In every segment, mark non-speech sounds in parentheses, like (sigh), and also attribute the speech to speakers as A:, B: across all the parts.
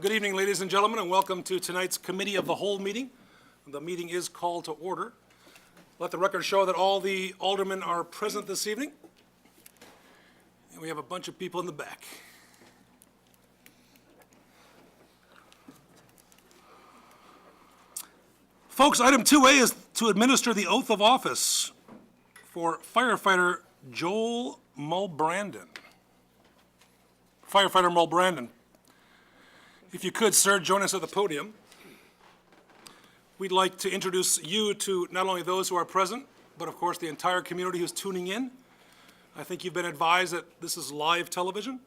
A: Good evening, ladies and gentlemen, and welcome to tonight's Committee of the Whole meeting. The meeting is called to order. Let the record show that all the aldermen are present this evening. And we have a bunch of people in the back. Folks, item 2A is to administer the oath of office for firefighter Joel Mulbrandon. Firefighter Mulbrandon, if you could, sir, join us at the podium. We'd like to introduce you to not only those who are present, but of course, the entire community who's tuning in. I think you've been advised that this is live
B: (laughs)
A: television.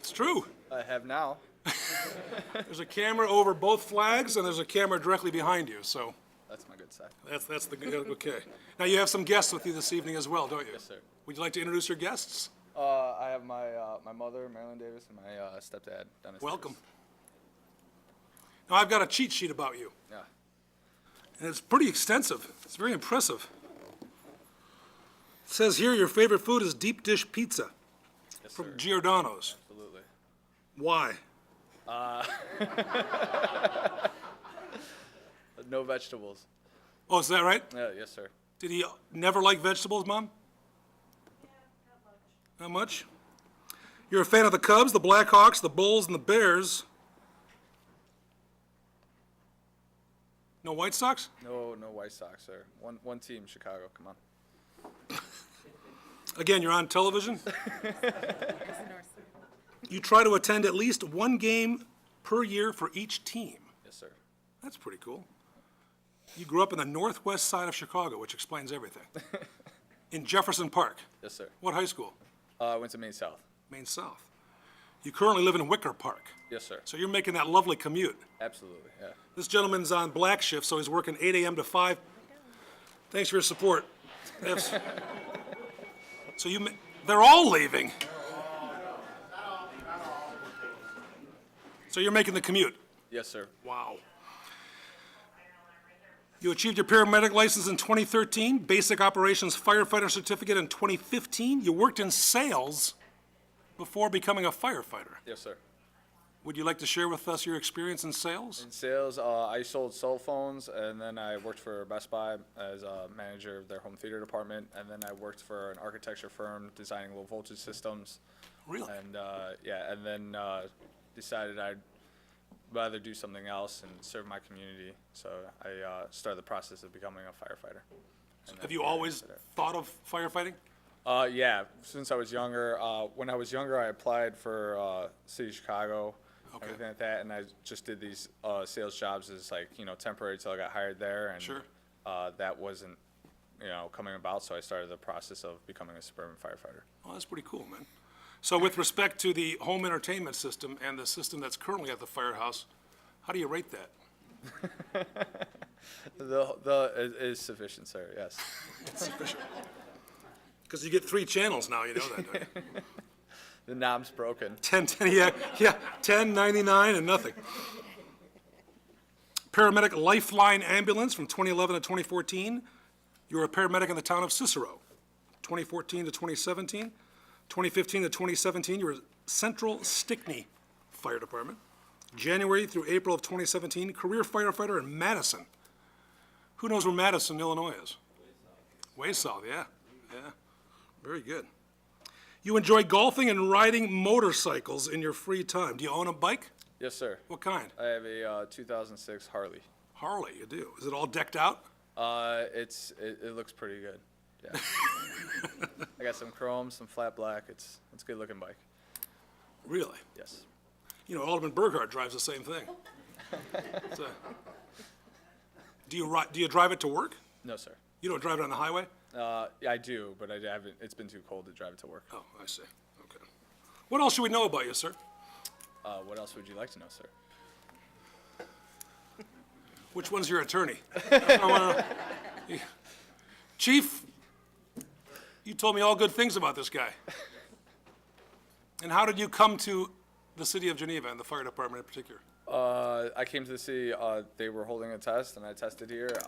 A: It's true.
B: I have now.
A: There's a camera over both flags, and there's a camera directly behind you, so
B: That's my good side.
A: that's, that's the, good- okay. Now, you have some guests with you this evening as well, don't you?
B: Yes, sir.
A: Would you like to introduce your guests?
B: Uh, I have my uh, my mother, Marilyn Davis, and my uh, stepdad, Dennis. Davis.
A: Welcome. Now, I've got a cheat sheet about you.
B: Yeah.
A: And it's pretty extensive. It's very impressive. It says here your favorite food is deep dish pizza
B: Yes, sir.
A: from Giordano's.
B: Absolutely.
A: Why?
B: Uh, No vegetables.
A: Oh, is that right?
B: Yeah. Yes, sir.
A: Did he never like vegetables, Mom? Not much? You're a fan of the Cubs, the Blackhawks, the Bulls, and the Bears. No White Sox?
B: No, no White Sox, sir. One one team, Chicago. Come on.
A: Again, you're on television. You try to attend at least one game per year for each team.
B: Yes, sir.
A: That's pretty cool. You grew up in the northwest side of Chicago, which explains everything. In Jefferson Park.
B: Yes, sir.
A: What high school?
B: Uh, I went to Maine South.
A: Maine South. You currently live in Wicker Park,
B: Yes, sir.
A: so you're making that lovely commute.
B: Absolutely. Yeah.
A: This gentleman's on black shift, so he's working 8 AM to 5. Thanks for your support. That's- So you, ma- they're all leaving. So you're making the commute?
B: Yes, sir.
A: Wow. You achieved your paramedic license in 2013, basic operations firefighter certificate in 2015. You worked in sales before becoming a firefighter.
B: Yes, sir.
A: Would you like to share with us your experience in sales?
B: In sales, uh, I sold cell phones, and then I worked for Best Buy as a manager of their home theater department, and then I worked for an architecture firm designing low voltage systems.
A: Really?
B: And uh, yeah, and then uh, decided I'd rather do something else and serve my community. So I uh, started the process of becoming a firefighter.
A: Have you always thought of firefighting?
B: Uh, yeah, since I was younger, uh, when I was younger, I applied for uh, City of Chicago,
A: Okay.
B: everything like that, and I just did these uh, sales jobs as like you know temporary till I got hired there, and
A: Sure.
B: uh, that wasn't you know coming about, so I started the process of becoming a suburban firefighter.
A: Oh, that's pretty cool, man. So with respect to the home entertainment system and the system that's currently at the firehouse, how do you rate that? (laughs)
B: The the is, is sufficient, sir. Yes.
A: Because you get three channels now, you know that, don't you?
B: The knob's broken.
A: 10, 10, yeah, yeah, 10, 99, and nothing. Paramedic Lifeline Ambulance from 2011 to 2014. You were a paramedic in the town of Cicero, 2014 to 2017. 2015 to 2017, you were Central Stickney Fire Department. January through April of 2017, career firefighter in Madison. Who knows where Madison, Illinois is? Way south, yeah, yeah. Very good. You enjoy golfing and riding motorcycles in your free time. Do you own a bike?
B: Yes, sir.
A: What kind?
B: I have a uh, 2006 Harley.
A: Harley, you do. Is it all decked out?
B: Uh, it's it, it looks pretty good. Yeah. I got some chrome, some flat black. It's it's a good looking bike.
A: Really?
B: Yes.
A: You know, Alderman Burghardt drives the same thing. It's a- Do you ri, do you drive it to work?
B: No, sir.
A: You don't drive it on the highway?
B: Uh, yeah, I do, but I haven't. It's been too cold to drive it to work.
A: Oh, I see. Okay. What else should we know about you, sir?
B: Uh, what else would you like to know, sir?
A: Which one's your attorney? (laughs) That's what I wanna know. Chief, you told me all good things about this guy. And how did you come to the city of Geneva and the fire department in particular?
B: Uh, I came to the city. Uh, they were holding a test, and I tested here.